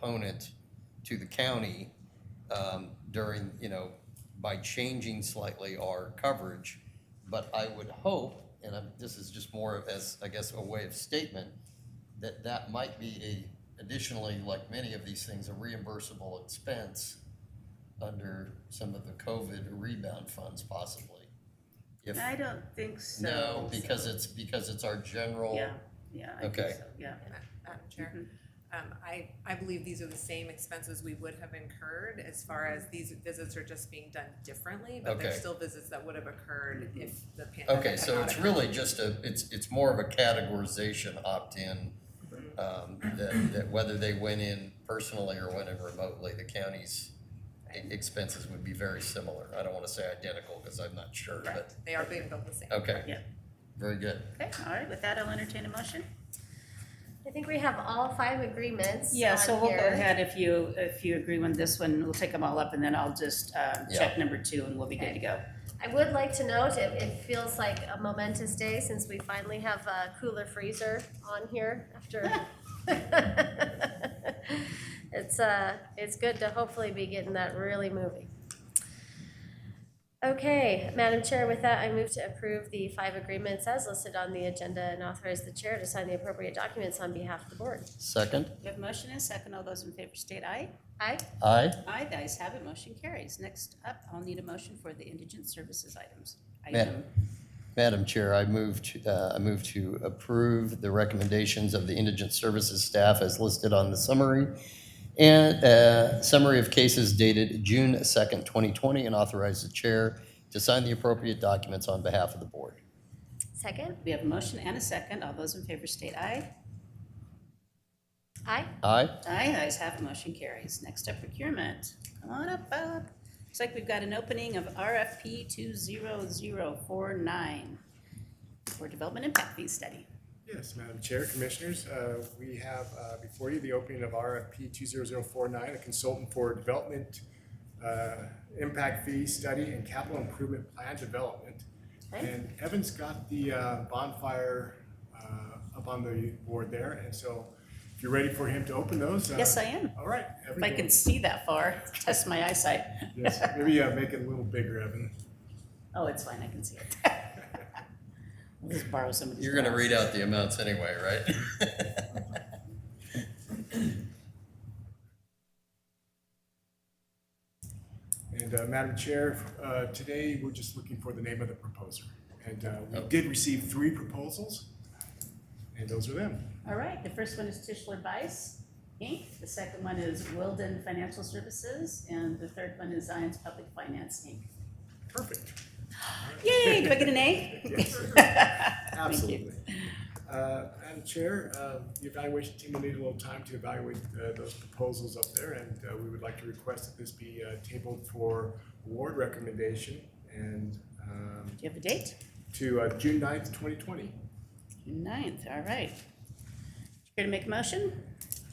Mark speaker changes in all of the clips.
Speaker 1: component to the county um, during, you know, by changing slightly our coverage. But I would hope, and I'm, this is just more of as, I guess, a way of statement, that that might be a, additionally, like many of these things, a reimbursable expense under some of the COVID rebound funds possibly. If,
Speaker 2: I don't think so.
Speaker 1: no, because it's, because it's our general.
Speaker 2: Yeah, yeah, I think
Speaker 1: Okay.
Speaker 2: so, yeah.
Speaker 3: And I- Madam Chair,
Speaker 1: Mm-hmm.
Speaker 3: um, I, I believe these are the same expenses we would have incurred as far as these visits are just being done differently, but they're
Speaker 1: Mm-hmm. Okay.
Speaker 3: still visits that would have occurred if the pandemic
Speaker 1: Okay,
Speaker 3: had
Speaker 1: so
Speaker 3: not
Speaker 1: it's
Speaker 3: occurred.
Speaker 1: really just a, it's, it's more of a categorization opt-in, um, that, that whether they went in personally or went in remotely, the county's e- expenses would be very similar. I don't wanna say identical, cause I'm not sure, but,
Speaker 3: Correct, they are being billed the same.
Speaker 1: okay.
Speaker 2: Yeah.
Speaker 1: Very good.
Speaker 2: Okay, all right, with that, I'll entertain a motion.
Speaker 4: I think we have all five agreements
Speaker 2: Yeah, so
Speaker 4: on
Speaker 2: we'll go
Speaker 4: here.
Speaker 2: ahead if you, if you agree on this one, we'll take them all up and then I'll just, um,
Speaker 1: Yeah.
Speaker 2: check number two and we'll be good to go.
Speaker 4: I would like to note, it, it feels like a momentous day since we finally have a cooler freezer on here after. It's, uh, it's good to hopefully be getting that really moving. Okay, Madam Chair, with that, I move to approve the five agreements as listed on the agenda and authorize the chair to sign the appropriate documents on behalf of the board.
Speaker 1: Second,
Speaker 2: We have a motion and a second. All those in favor state aye.
Speaker 4: Aye?
Speaker 1: aye?
Speaker 2: Aye, the ayes have it, motion carries. Next up, I'll need a motion for the indigent services items.
Speaker 1: Ma-
Speaker 2: Item.
Speaker 1: Madam Chair, I move to, uh, I move to approve the recommendations of the indigent services staff as listed on the summary and, uh, summary of cases dated June second, twenty twenty, and authorize the chair to sign the appropriate documents on behalf of the board.
Speaker 4: Second?
Speaker 2: We have a motion and a second. All those in favor state aye.
Speaker 4: Aye?
Speaker 1: Aye?
Speaker 2: Aye, the ayes have it, motion carries. Next up, procurement. Come on up, Bob. Looks like we've got an opening of RFP two zero zero four nine for development impact fee study.
Speaker 5: Yes, Madam Chair, Commissioners, uh, we have uh, before you the opening of RFP 20049, a consultant for development uh, impact fee study and capital improvement plan development. And Evan's got the uh, bonfire uh, up on the board there, and so if you're ready for him to open those. uh,
Speaker 2: Yes, I am.
Speaker 5: All right. Evan,
Speaker 2: If I
Speaker 5: go-
Speaker 2: can see that far, test my eyesight.
Speaker 5: Yes, maybe uh, make it a little bigger, Evan.
Speaker 2: Oh, it's fine, I can see it. I'll Just borrow somebody's.
Speaker 1: You're gonna
Speaker 2: glasses.
Speaker 1: read out the amounts anyway, right?
Speaker 5: And uh, Madam Chair, uh, today we're just looking for the name of the proposer. And uh, we
Speaker 1: Oh.
Speaker 5: did receive three proposals, and those are them.
Speaker 2: All right, the first one is Tischler Bice, Inc., the second one is Wilden Financial Services, and the third one is Zions Public Finance, Inc.
Speaker 5: Perfect.
Speaker 2: Yay, do I get an A?
Speaker 5: Absolutely. Uh, Madam Chair, uh, the evaluation team will need a little time to evaluate uh, those proposals up there, and uh, we would like to request that this be uh, tabled for award recommendation and um,
Speaker 2: Do you have a date?
Speaker 5: to uh, June 9th, 2020.
Speaker 2: Ninth, all right. Here to make a motion?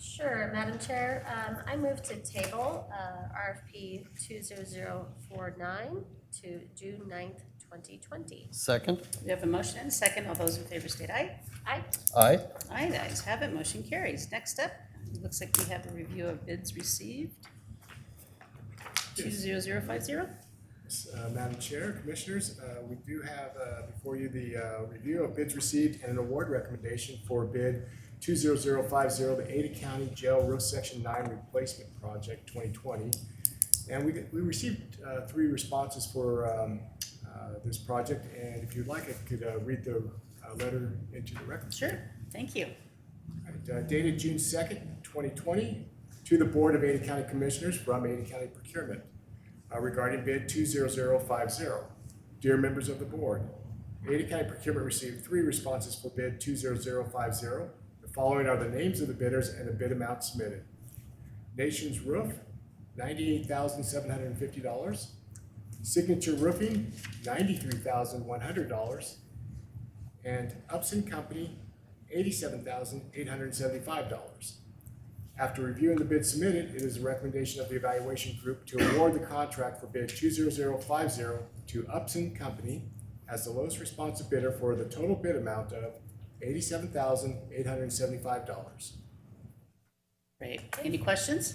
Speaker 4: Sure, Madam Chair, um, I move to table, uh, RFP two zero zero four nine to June 9th, twenty twenty.
Speaker 1: Second?
Speaker 2: We have a motion and a second. All those in favor state aye.
Speaker 4: Aye,
Speaker 1: Aye?
Speaker 2: Aye, the ayes have it. Motion carries. Next up, it looks like we have a review of bids received. Two zero zero five zero.
Speaker 5: Yes, uh, Madam Chair, Commissioners, uh, we do have uh, before you the uh, review of bids received and an award recommendation for bid 20050, the Ada County Jail Row Section 9 Replacement Project 2020. And we we received uh, three responses for um, uh, this project, and if you'd like, I could uh, read the uh, letter into the record.
Speaker 2: Sure, thank you.
Speaker 5: Alright, uh, Dated June second, twenty twenty, to the Board of Ada County Commissioners from Ada County Procurement uh, regarding bid two zero zero five zero. Dear members of the board, Ada County Procurement received three responses for bid two zero zero five zero. The following are the names of the bidders and the bid amount submitted. Nations Roof, ninety-eight thousand seven hundred and fifty dollars. Signature Roofing, ninety-three thousand one hundred dollars and Upson Company, eighty-seven thousand eight hundred and seventy-five dollars. After reviewing the bid submitted, it is the recommendation of the evaluation group to award the contract for bid two zero zero five zero to Upson Company as the lowest responsive bidder for the total bid amount of eighty-seven thousand eight hundred and seventy-five dollars.
Speaker 2: Great. Any questions?